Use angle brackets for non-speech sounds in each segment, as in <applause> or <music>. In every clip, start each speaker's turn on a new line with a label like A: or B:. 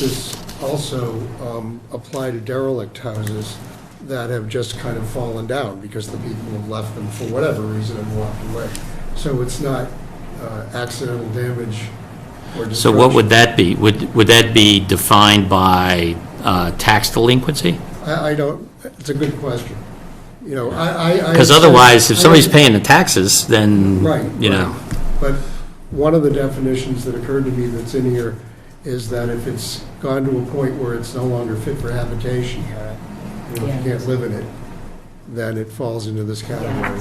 A: This also um, apply to derelict houses that have just kind of fallen down because the people have left them for whatever reason and walked away. So it's not uh, accidental damage or destruction.
B: So what would that be? Would, would that be defined by uh, tax delinquency?
A: I, I don't, it's a good question. You know, I, I. I-
B: Because otherwise, if
A: I-
B: somebody's paying the taxes, then,
A: Right.
B: you know,
A: right. But one of the definitions that occurred to me that's in here is that if it's gone to a point where it's no longer fit for habitation, you know, if you can't live in it, then it falls into this category.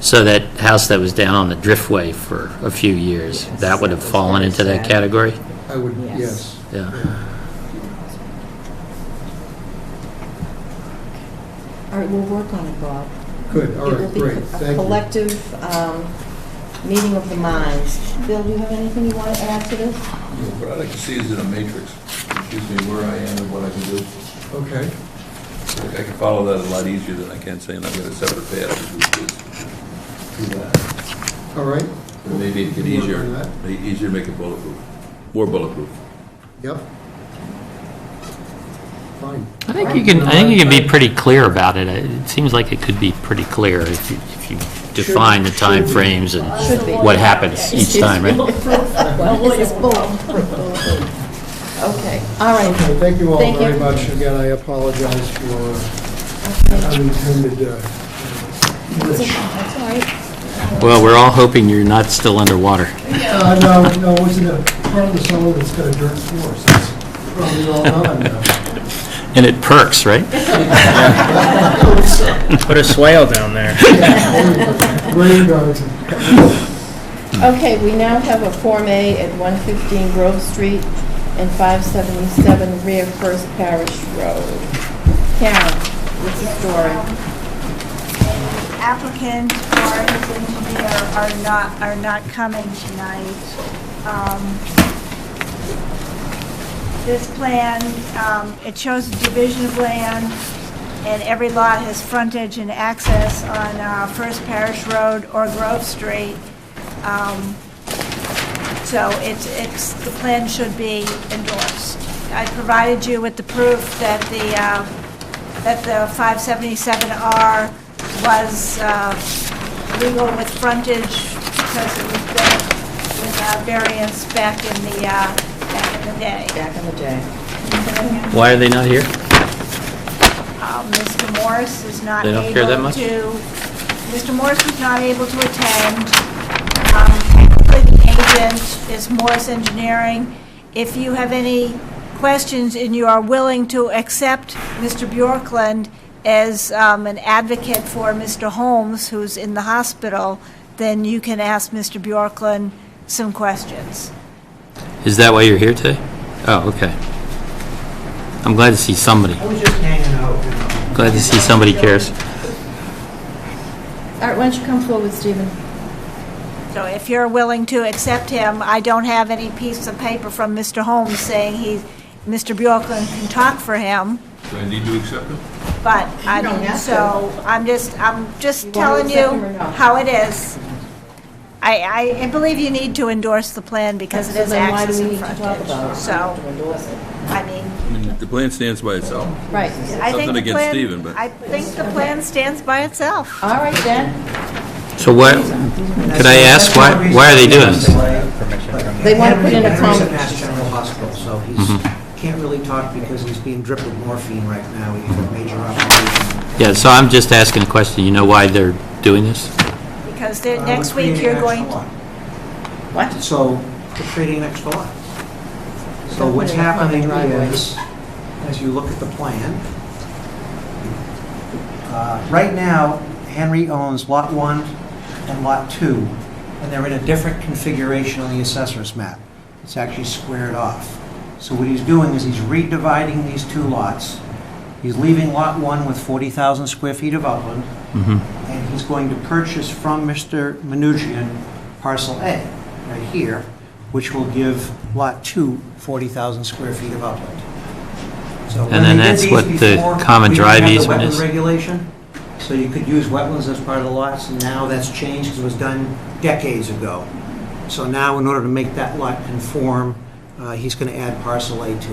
B: so that house that was down on the Driftway for a few years,
C: Yes,
B: that would have
C: that was
B: fallen
C: very
B: into that
C: sad.
B: category?
A: I would,
C: Yes.
A: yes.
B: Yeah.
C: All right, we'll work on it, Bob.
A: Good, all right,
C: It
A: great,
C: will be a
A: thank you.
C: collective um, meeting of the minds. Bill, do you have anything you want to add
A: <laughs>
C: to this?
D: What I'd like to see is in a matrix, excuse me, where I am and what I can do.
A: Okay,
D: Like, I can follow that a lot easier than I can saying I've got a separate path to do this, do that.
A: all right,
D: But Maybe it'd get easier,
A: Work on that.
D: make it easier to make it bulletproof, more bulletproof.
A: yep. Fine.
B: I think you can, I think you can be pretty clear about it. It seems like it could be pretty clear if you, if you define the
A: should be.
B: timeframes and
C: Should be.
B: what happens each time, right?
A: <laughs>
C: Well, this is bull. Okay, all
A: Okay,
C: right.
A: thank you all
C: Thank you.
A: very much. Again, I apologize for uh, unintended, uh,
C: That's all right.
B: Well, we're all hoping you're not still underwater.
A: Uh, no, no, it's in the part of the soil that's got a dirt floor, so it's probably all on now.
B: And it perks, <laughs> right?
E: Put a swale down there.
A: Rain gardens.
C: Okay, we now have a Form A at 115 Grove Street and 577 Rear First Parish Road. Karen, what's the story?
F: applicant or his engineer are not, are not coming tonight. Um, This plan, um, it shows a division of land, and every lot has frontage and access on uh, First Parish Road or Grove Street. Um, So it's, it's, the plan should be endorsed. I provided you with the proof that the, uh, that the 577R was uh, legal with frontage because it was built with uh, variance back in the, uh, back in the day.
C: Back in the day.
B: Why are they not here?
F: Uh, Mr. Morris is not
B: They
F: able to...
B: don't care that much?
F: Mr. Morris was not able to attend. Um, Technically, the agent is Morris Engineering. If you have any questions and you are willing to accept Mr. Bjorklund as um, an advocate for Mr. Holmes, who's in the hospital, then you can ask Mr. Bjorklund some questions.
B: Is that why you're here today? Oh, okay. I'm glad to see somebody.
G: I was just hanging out. you know.
B: Glad to see somebody cares.
C: All right, why don't you come forward, Stephen?
F: So if you're willing to accept him, I don't have any piece of paper from Mr. Holmes saying he, Mr. Bjorklund can talk for him,
D: Do I need to accept it?
F: but I
C: You don't
F: mean,
C: have
F: so, I'm just, I'm
C: You
F: just
C: wanna
F: telling you
C: accept him or not?
F: how it is. I, I- I believe you need to endorse the plan because it
C: So
F: is
C: then why do
F: access
C: we
F: and
C: need to talk
F: frontage.
C: about it?
F: So,
C: To endorse it.
F: I mean,
D: I mean, the plan stands by itself.
C: Right.
F: I think
D: Nothing
F: the
D: against Stephen,
F: plan,
D: but-
F: I think the plan stands by itself.
C: All right, then.
B: So what, could I ask, why, why are they doing this?
C: They want to put in a
G: Henry's
C: comment.
G: Mass General Hospital, so he's,
B: Mm-hmm.
G: can't really talk because he's being dripped with morphine right now. He has a major operation.
B: Yeah, so I'm just asking a question, you know why they're doing this?
F: Because they're-
G: Uh,
F: next
G: we're creating
F: week you're
G: an
F: going,
G: extra
F: to
G: lot.
C: What?
G: So, we're creating an extra lot. So what's
C: Definitely a
G: happening
C: common driveway.
G: is, as you look at the plan, uh, right now, Henry owns Lot 1 and Lot 2, and they're in a different configuration on the assessor's map. It's actually squared off. So what he's doing is he's redividing these two lots. He's leaving Lot 1 with 40,000 square feet of upland,
B: Mm-hmm.
G: and he's going to purchase from Mr. Menuchyan parcel A, right here, which will give Lot 2 40,000 square feet of upland. So when
B: And then
G: they did
B: that's
G: these
B: what the
G: before,
B: common
G: we didn't
B: drive
G: have the
B: easement
G: wetland
B: is?
G: regulation, so you could use wetlands as part of the lots, and now that's changed, because it was done decades ago. So now, in order to make that lot conform uh, he's going to add parcel A to